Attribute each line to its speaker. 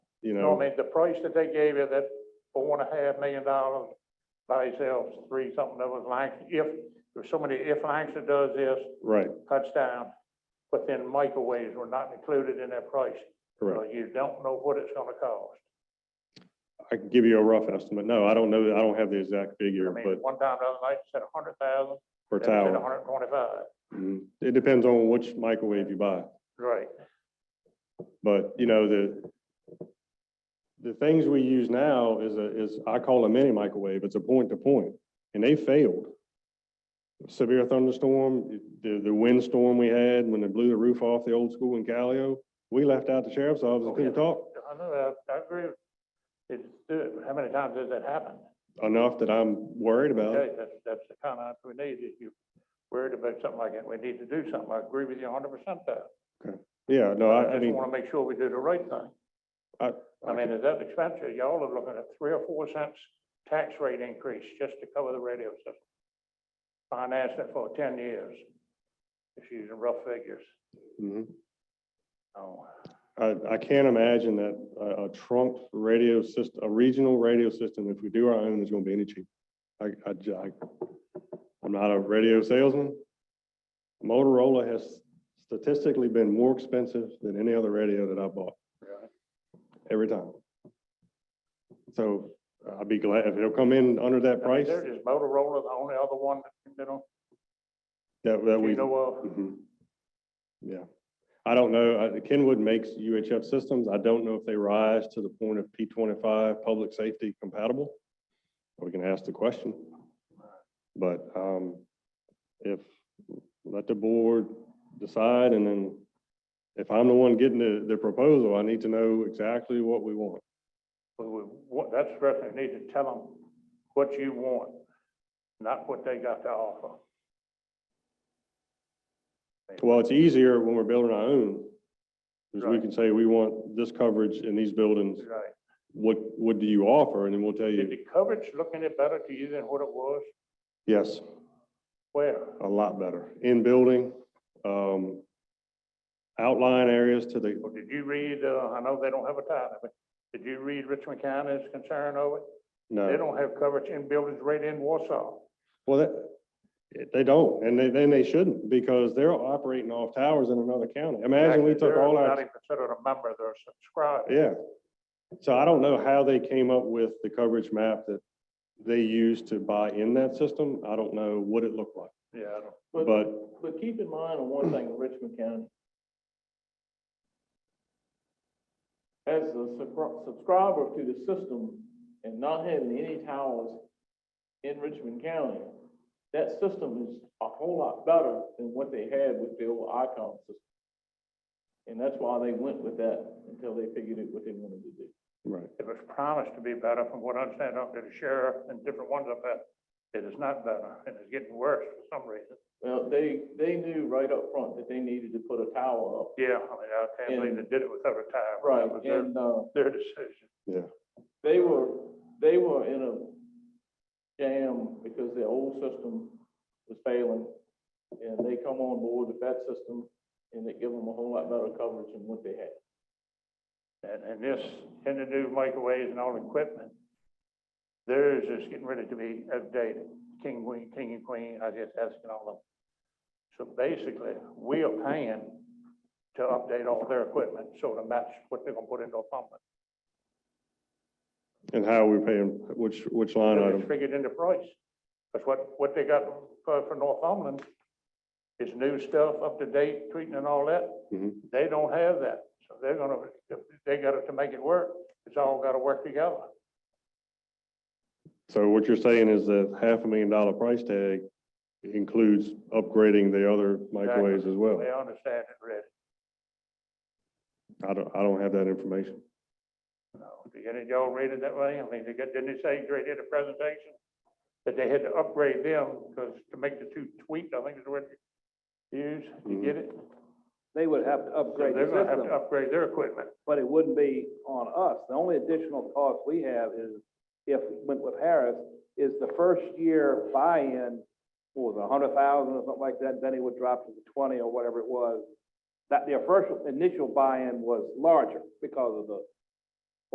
Speaker 1: you
Speaker 2: No, I
Speaker 1: know,
Speaker 2: mean, the price that they gave you, that four and a half million dollars by itself, three something that was Langston, if, there's so many, if Langston does this,
Speaker 1: right,
Speaker 2: cuts down, but then microwaves were not included in that price. So
Speaker 1: correct.
Speaker 2: you don't know what it's gonna cost.
Speaker 1: I can give you a rough estimate. No, I don't know, I don't have the exact
Speaker 2: I
Speaker 1: figure,
Speaker 2: mean,
Speaker 1: but
Speaker 2: one time the other night, it said a hundred thousand,
Speaker 1: per
Speaker 2: then it said a
Speaker 1: tower.
Speaker 2: hundred and twenty-five.
Speaker 1: Mhm. It depends on which microwave you buy.
Speaker 2: Right.
Speaker 1: But, you know, the, the things we use now is a, is, I call a mini microwave, it's a point to point, and they failed. Severe thunderstorm, the, the windstorm we had when it blew the roof off the old school in Callio, we left out the sheriff's office,
Speaker 2: Oh,
Speaker 1: couldn't
Speaker 2: yeah.
Speaker 1: talk
Speaker 2: I know, I, I agree. with- It's, good, but how many times has that happened?
Speaker 1: enough that I'm worried about it.
Speaker 2: Okay, that's, that's the kind of answer we need, if you're worried about something like that, we need to do something, I agree with you hundred percent there.
Speaker 1: Yeah, no, I,
Speaker 2: I
Speaker 1: I
Speaker 2: just
Speaker 1: mean,
Speaker 2: want to make sure we do the right thing.
Speaker 1: I-
Speaker 2: I mean, is that expensive? Y'all are looking at three or four cents tax rate increase just to cover the radio system. Finance it for ten years. Just using rough figures.
Speaker 1: mhm.
Speaker 2: Oh,
Speaker 1: I, I can't imagine that a, a trunk radio system, a regional radio system, if we do our own, is gonna be any cheaper. I, I, ju- I, I'm not a radio salesman. Motorola has statistically been more expensive than any other radio that I bought,
Speaker 2: really?
Speaker 1: every time. So I'd be glad if it'll come in under that
Speaker 2: I mean,
Speaker 1: price
Speaker 2: there is Motorola, the only other one that,
Speaker 1: that, that
Speaker 2: you know,
Speaker 1: we.
Speaker 2: you know of.
Speaker 1: Mhm. Yeah, I don't know, uh, Kenwood makes UHF systems, I don't know if they rise to the point of P twenty-five public safety compatible. We can ask the question. But, um, if, let the board decide, and then if I'm the one getting the, the proposal, I need to know exactly what we want.
Speaker 2: But we, what, that's the rest, you need to tell them what you want, not what they got to offer.
Speaker 1: Well, it's easier when we're building our own, because we
Speaker 2: Right.
Speaker 1: can say, we want this coverage in these buildings,
Speaker 2: Right.
Speaker 1: what, what do you offer, and then we'll tell
Speaker 2: Did
Speaker 1: you,
Speaker 2: the coverage look any better to you than what it was?
Speaker 1: yes.
Speaker 2: Where?
Speaker 1: a lot better. In building, um, outline areas to the,
Speaker 2: Well, did you read, uh, I know they don't have a title, but did you read Richmond County's concern over it? They
Speaker 1: no,
Speaker 2: don't have coverage in buildings right in Warsaw.
Speaker 1: well, that, they don't, and they, then they shouldn't, because they're operating off towers in another county. Imagine we took
Speaker 2: They're
Speaker 1: all
Speaker 2: Not
Speaker 1: our,
Speaker 2: even considered a member, they're subscribed.
Speaker 1: yeah. So I don't know how they came up with the coverage map that they used to buy in that system. I don't know what it looked like,
Speaker 2: Yeah, I don't-
Speaker 3: But-
Speaker 1: but
Speaker 3: But keep in mind on one thing, in Richmond County. As a subscri- subscriber to the system and not having any towers in Richmond County, that system is a whole lot better than what they had with the old Icon system. And that's why they went with that until they figured out what they wanted to do.
Speaker 1: right,
Speaker 2: it was promised to be better from what I understand up to the sheriff and different ones up there. It is not better and it's getting worse for some reason.
Speaker 3: Well, they, they knew right up front that they needed to put a tower up.
Speaker 2: Yeah, I mean, I can't believe they did it without a tie. but that was their-
Speaker 3: And, uh,
Speaker 2: Their decision.
Speaker 3: they were, they were in a jam because their old system was failing. And they come on board with that system and they give them a whole lot better coverage than what they had.
Speaker 2: And, and this, and the new microwaves and all the equipment, theirs is getting ready to be updated. King, queen, king and queen, I just asking all of them. So basically, we are paying to update all their equipment, so to match what they're gonna put into a pump.
Speaker 1: and how we pay them, which, which line
Speaker 2: It's
Speaker 1: item.
Speaker 2: figured into price. That's what, what they got for, for Northumberland is new stuff, up to date, treating and all that.
Speaker 1: Mhm.
Speaker 2: They don't have that, so they're gonna, they got it to make it work. It's all gotta work together.
Speaker 1: So what you're saying is that half a million dollar price tag includes upgrading the other microwaves as well?
Speaker 2: They understand it, Red.
Speaker 1: I don't, I don't have that information.
Speaker 2: No, did any of y'all read it that way? I mean, they got, didn't they say, Greg did a presentation? That they had to upgrade them because to make the two tweaked, I think is the word you use, you get it?
Speaker 4: they would have to
Speaker 2: So
Speaker 4: upgrade
Speaker 2: They're
Speaker 4: the
Speaker 2: gonna have
Speaker 4: system,
Speaker 2: to upgrade their equipment.
Speaker 4: but it wouldn't be on us. The only additional cost we have is, if we went with Harris, is the first year buy-in, what was it, a hundred thousand or something like that, then it would drop to the twenty or whatever it was. That their first initial buy-in was larger because of the